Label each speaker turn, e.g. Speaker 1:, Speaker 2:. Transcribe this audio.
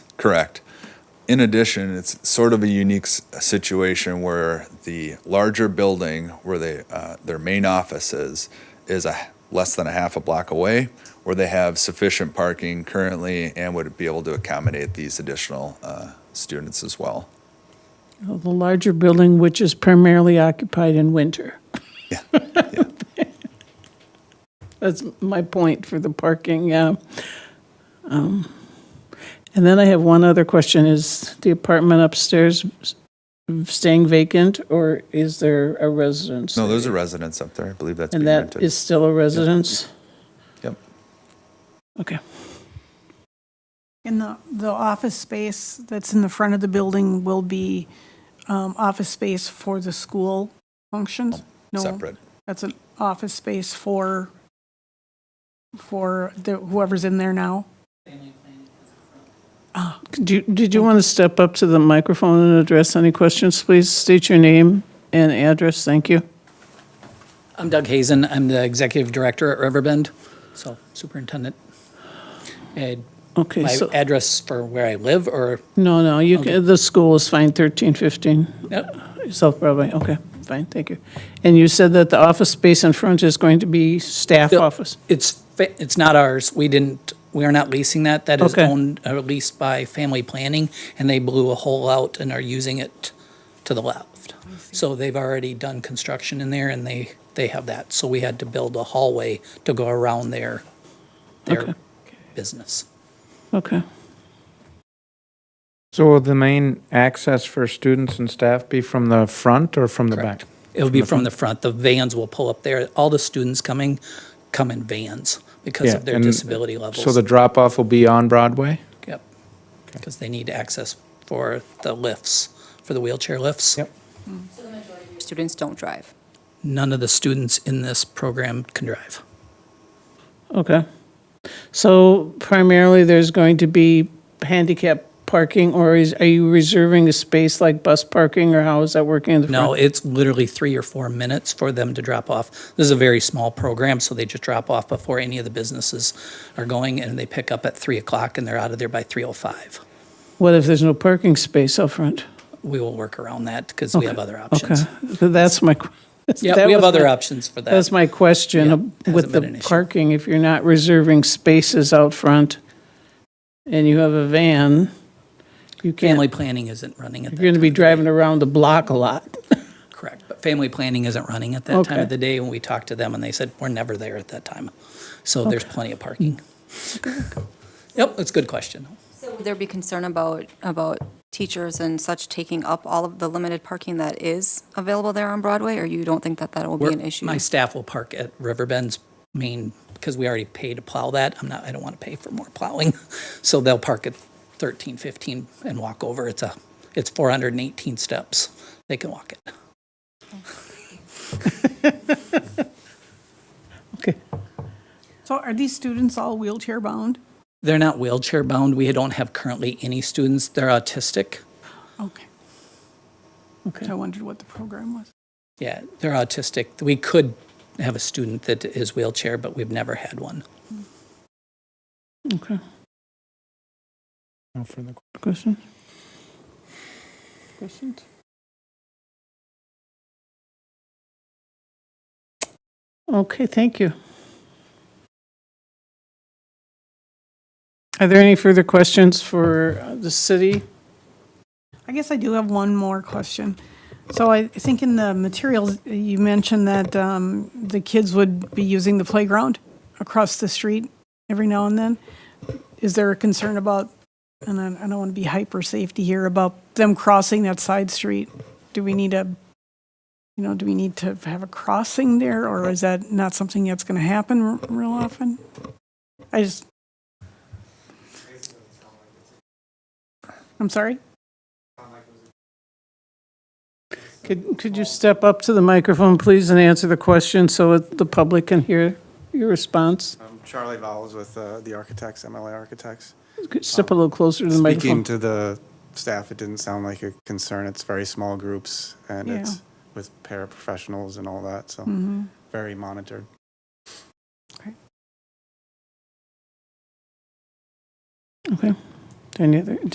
Speaker 1: Correct. In addition, it's sort of a unique s- situation where the larger building where they, uh, their main office is, is a, less than a half a block away, where they have sufficient parking currently and would be able to accommodate these additional uh, students as well.
Speaker 2: The larger building, which is primarily occupied in winter.
Speaker 1: Yeah.
Speaker 2: That's my point for the parking, yeah. Um, And then I have one other question. Is the apartment upstairs staying vacant, or is there a residence?
Speaker 1: No, there's a residence up there. I believe that's being
Speaker 2: And
Speaker 1: rented.
Speaker 2: that is still a residence?
Speaker 1: Yep.
Speaker 2: Okay.
Speaker 3: And the, the office space that's in the front of the building will be um, office space for the school functions? No,
Speaker 1: Separate.
Speaker 3: that's an office space for, for the- whoever's in there now?
Speaker 2: Do you- Did you want to step up to the microphone and address any questions, please? State your name and address, thank you.
Speaker 4: I'm Doug Hazen. I'm the executive director at Riverbend, so superintendent. And
Speaker 2: Okay,
Speaker 4: my
Speaker 2: so,
Speaker 4: address for where I live, or
Speaker 2: no, no, you,
Speaker 4: Okay.
Speaker 2: can- the school is fine, 1315.
Speaker 4: Yep.
Speaker 2: South Broadway, okay, fine, thank you. And you said that the office space in front is going to be staff
Speaker 4: Yep.
Speaker 2: office?
Speaker 4: it's fa- it's not ours. We didn't. We are not leasing that. That is
Speaker 2: Okay.
Speaker 4: owned or leased by Family Planning, and they blew a hole out and are using it to the left. So they've already done construction in there, and they they have that. So we had to build a hallway to go around their their
Speaker 2: Okay.
Speaker 4: business.
Speaker 2: Okay,
Speaker 5: So will the main access for students and staff be from the front or from the back?
Speaker 4: Correct. It'll be from the front. The vans will pull up there. All the students coming, come in vans because
Speaker 5: Yeah,
Speaker 4: of their
Speaker 5: and
Speaker 4: disability levels.
Speaker 5: So the drop-off will be on Broadway?
Speaker 4: Yep. Because they need access for the lifts, for the wheelchair lifts.
Speaker 5: Yep.
Speaker 6: Students don't drive.
Speaker 4: None of the students in this program can drive.
Speaker 2: okay. So primarily, there's going to be handicap parking, or is, are you reserving a space like bus parking, or how is that working in the front?
Speaker 4: No, it's literally three or four minutes for them to drop off. This is a very small program, so they just drop off before any of the businesses are going, and they pick up at three o'clock, and they're out of there by three o five.
Speaker 2: What if there's no parking space up front?
Speaker 4: We will work around that because we have other options.
Speaker 2: Okay, that's my. que-
Speaker 4: Yeah,
Speaker 2: that
Speaker 4: we have
Speaker 2: was
Speaker 4: other
Speaker 2: my-
Speaker 4: options for that.
Speaker 2: That's my
Speaker 4: Yeah,
Speaker 2: question
Speaker 4: hasn't
Speaker 2: with
Speaker 4: been an
Speaker 2: the
Speaker 4: issue.
Speaker 2: parking. If you're not reserving spaces out front and you have a van, you can't,
Speaker 4: Family planning isn't running at that
Speaker 2: you're going to be
Speaker 4: time of
Speaker 2: driving around the block a lot.
Speaker 4: the day. Correct, but family planning isn't running at that time
Speaker 2: Okay.
Speaker 4: of the day, and we talked to them, and they said, we're never there at that time. So there's plenty of parking. Yep, that's a good question.
Speaker 6: So would there be concern about, about teachers and such taking up all of the limited parking that is available there on Broadway? Or you don't think that that will be
Speaker 4: We're-
Speaker 6: an issue?
Speaker 4: My staff will park at Riverbend's main, because we already pay to plow that, I'm not, I don't want to pay for more plowing. So they'll park at thirteen, fifteen and walk over, it's a, it's four hundred and eighteen steps, they can walk it.
Speaker 2: Okay.
Speaker 3: So are these students all wheelchair-bound?
Speaker 4: They're not wheelchair bound, we don't have currently any students, they're autistic.
Speaker 3: Okay. Okay. I wondered what the program was.
Speaker 4: Yeah, they're autistic. We could have a student that is wheelchair, but we've never had one.
Speaker 2: Okay.
Speaker 5: No further que-
Speaker 2: Questions? Questions? Okay, thank you. Are there any further questions for uh, the city?
Speaker 3: I guess I do have one more question. So I think in the materials, you mentioned that um, the kids would be using the playground across the street every now and then. Is there a concern about, and I I don't want to be hyper safety here, about them crossing that side street? Do we need a, you know, do we need to have a crossing there, or is that not something that's going to happen r- real often? I just. I'm sorry?
Speaker 2: Could, could you step up to the microphone, please, and answer the question so that the public can hear your response?
Speaker 7: I'm Charlie Vowles with uh, the Architects, MLA Architects.
Speaker 2: Could you Step a little closer to the
Speaker 7: Speaking
Speaker 2: microphone.
Speaker 7: to the staff, it didn't sound like a concern. It's very small groups and
Speaker 3: Yeah.
Speaker 7: it's with paraprofessionals and all that, so
Speaker 2: Mm.
Speaker 3: Mm-hmm.
Speaker 7: very monitored.
Speaker 2: Okay. Any other,